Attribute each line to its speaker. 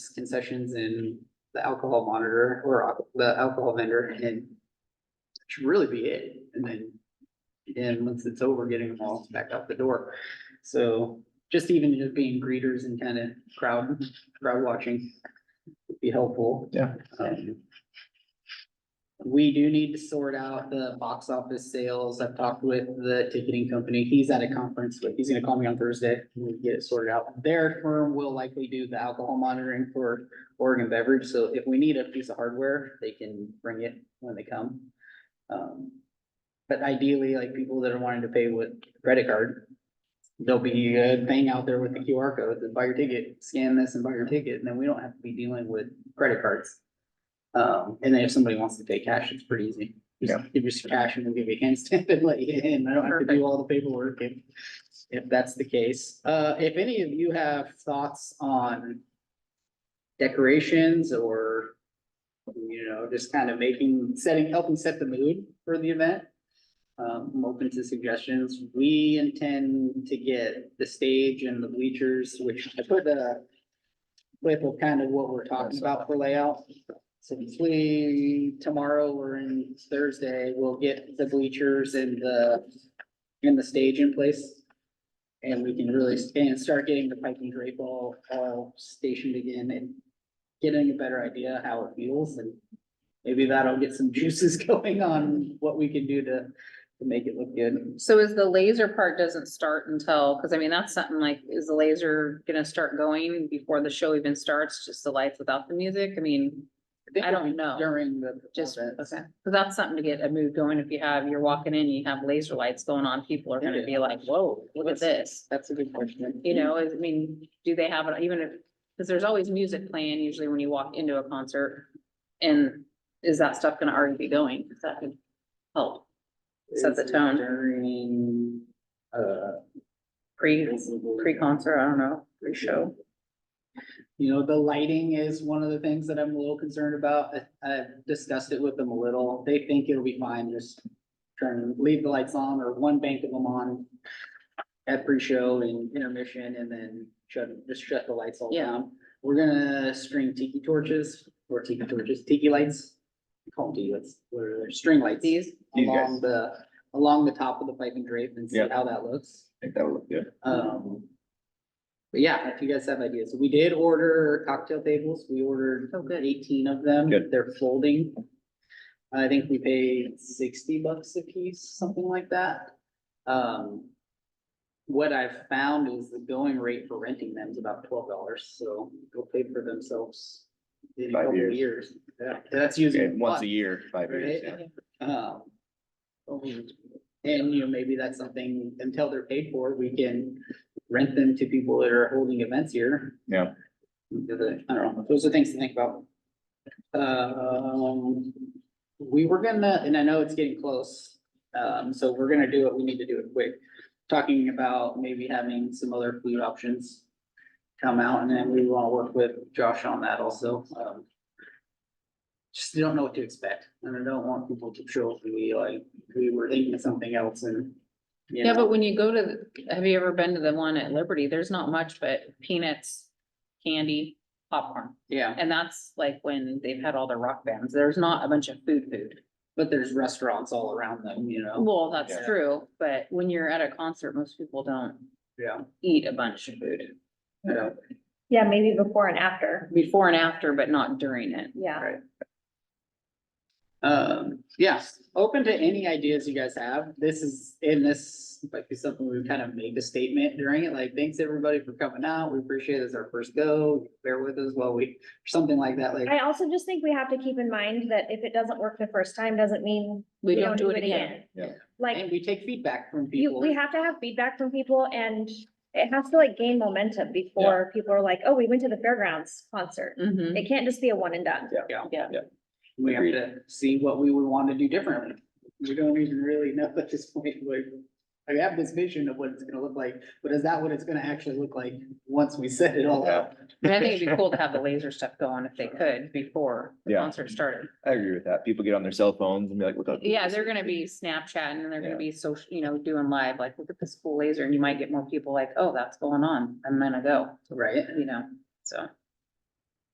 Speaker 1: concessions and the alcohol monitor or al- the alcohol vendor and that should really be it. And then, and once it's over, getting them all back out the door. So just even just being greeters and kind of crowd, crowd watching would be helpful.
Speaker 2: Yeah.
Speaker 1: Um, we do need to sort out the box office sales. I've talked with the ticketing company. He's at a conference, but he's gonna call me on Thursday. and We can get it sorted out. Their firm will likely do the alcohol monitoring for Oregon Beverage, so if we need a piece of hardware, they can bring it when they come. Um, but ideally, like people that are wanting to pay with credit card, there'll be a thing out there with the QR code, that buy your ticket, scan this and buy your ticket, and then we don't have to be dealing with credit cards. Um, and then if somebody wants to pay cash, it's pretty easy.
Speaker 2: Yeah.
Speaker 1: Just Give you some cash and we'll give you a hand stamp and let you in. I don't have to do all the paperwork if, if that's the case. Uh, if any of you have thoughts on decorations or, you know, just kind of making, setting, helping set the mood for the event. Um, I'm open to suggestions. We intend to get the stage and the bleachers, which I put a clip of kind of what we're talking about for layout. So we, tomorrow or in Thursday, we'll get the bleachers and the, and the stage in place. And we can really, and start getting the pike and drape all, all stationed again and getting a better idea how it feels and maybe that'll get some juices going on what we can do to, to make it look good.
Speaker 3: So is the laser part doesn't start until, cause I mean, that's something like, is the laser gonna start going before the show even starts, just the lights without the music? I mean,
Speaker 1: think
Speaker 3: I don't know.
Speaker 1: During the.
Speaker 3: just, okay,
Speaker 1: performance.
Speaker 3: cause that's something to get a mood going. If you have, you're walking in, you have laser lights going on, people are gonna be like, whoa, look at this.
Speaker 1: That's a good question.
Speaker 3: You know, I mean, do they have, it even if, cause there's always music playing usually when you walk into a concert. And is that stuff gonna already be going? 'Cause that could help set the
Speaker 1: Is it
Speaker 3: tone.
Speaker 1: During, uh.
Speaker 3: pre, pre-concert, I don't know, pre-show.
Speaker 1: You know, the lighting is one of the things that I'm a little concerned about. I- I've discussed it with them a little. They think it'll be fine, just turn, leave the lights on or one bank of them on at pre-show and intermission and then shut, just shut the lights all
Speaker 3: Yeah.
Speaker 1: down. We're gonna string tiki torches or tiki torches, tiki lights. We Call them tiki lights, or string lights.
Speaker 3: These?
Speaker 2: These guys.
Speaker 1: Along the, along the top of the pipe and drape and see
Speaker 2: Yeah.
Speaker 1: how that looks.
Speaker 2: think that would look good.
Speaker 1: Um. But yeah, if you guys have ideas, we did order cocktail tables, we ordered
Speaker 3: Oh, good.
Speaker 1: eighteen of them,
Speaker 2: Good.
Speaker 1: they're folding. I think we paid sixty bucks a piece, something like that. Um. What I've found is the going rate for renting them is about twelve dollars, so they'll pay for themselves. In a
Speaker 2: Five
Speaker 1: couple of
Speaker 2: years.
Speaker 1: years, Yeah, that's
Speaker 2: Yeah,
Speaker 1: using.
Speaker 2: once a
Speaker 1: one.
Speaker 2: year, five years, yeah.
Speaker 1: Right? Um, And, you know, maybe that's something, until they're paid for, we can rent them to people that are holding events here.
Speaker 2: Yeah.
Speaker 1: I don't know, those are things to think about. Um, we were gonna, and I know it's getting close, um, so we're gonna do it, we need to do it quick. Talking about maybe having some other food options come out, and then we wanna work with Josh on that also, um. Just don't know what to expect, and I don't want people to show up and be like, we were thinking something else and. you
Speaker 3: Yeah,
Speaker 1: know.
Speaker 3: but when you go to, the- have you ever been to the one at Liberty? There's not much but peanuts, candy, popcorn.
Speaker 1: Yeah,
Speaker 3: And that's like when they've had all the rock bands. There's not a bunch of food food.
Speaker 1: but there's restaurants all around them, you know,
Speaker 3: Well, that's
Speaker 2: Yeah.
Speaker 3: true, but when you're at a concert, most people don't
Speaker 1: yeah,
Speaker 3: eat a bunch of food
Speaker 1: you know,
Speaker 4: Yeah, maybe before and after,
Speaker 3: before and after, but not during it.
Speaker 4: yeah.
Speaker 1: Um, yes, open to any ideas you guys have. This is, in this might be something we've kind of made a statement during it, like, thanks everybody for coming out. We appreciate it. It's our first go. Bear with us while we, something like that, like,
Speaker 4: I also just think we have to keep in mind that if it doesn't work the first time, doesn't mean
Speaker 3: We don't do it again.
Speaker 2: Yeah.
Speaker 4: Like,
Speaker 1: and we take feedback from
Speaker 4: you,
Speaker 1: people.
Speaker 4: we have to have feedback from people and it has to like gain momentum before people are like, oh, we went to the fairgrounds concert.
Speaker 3: Mhm.
Speaker 4: It can't just be a one and done.
Speaker 1: We have
Speaker 2: Agreed.
Speaker 1: to see what we would want to do differently. We don't even really know at this point, like, I have this vision of what it's gonna look like, but is that what it's gonna actually look like once we set it all up?
Speaker 3: I mean, I think it'd be cool to have the laser stuff going if they could before the
Speaker 2: Yeah.
Speaker 3: concert started.
Speaker 2: I agree with that. People get on their cell phones and be like, look. up.
Speaker 3: Yeah, they're gonna be Snapchatting and they're gonna
Speaker 2: Yeah.
Speaker 3: be social, you know, doing live, like, look at this cool laser, and you might get more people like, oh, that's going on, I'm gonna go,
Speaker 1: Right?
Speaker 3: you know, so.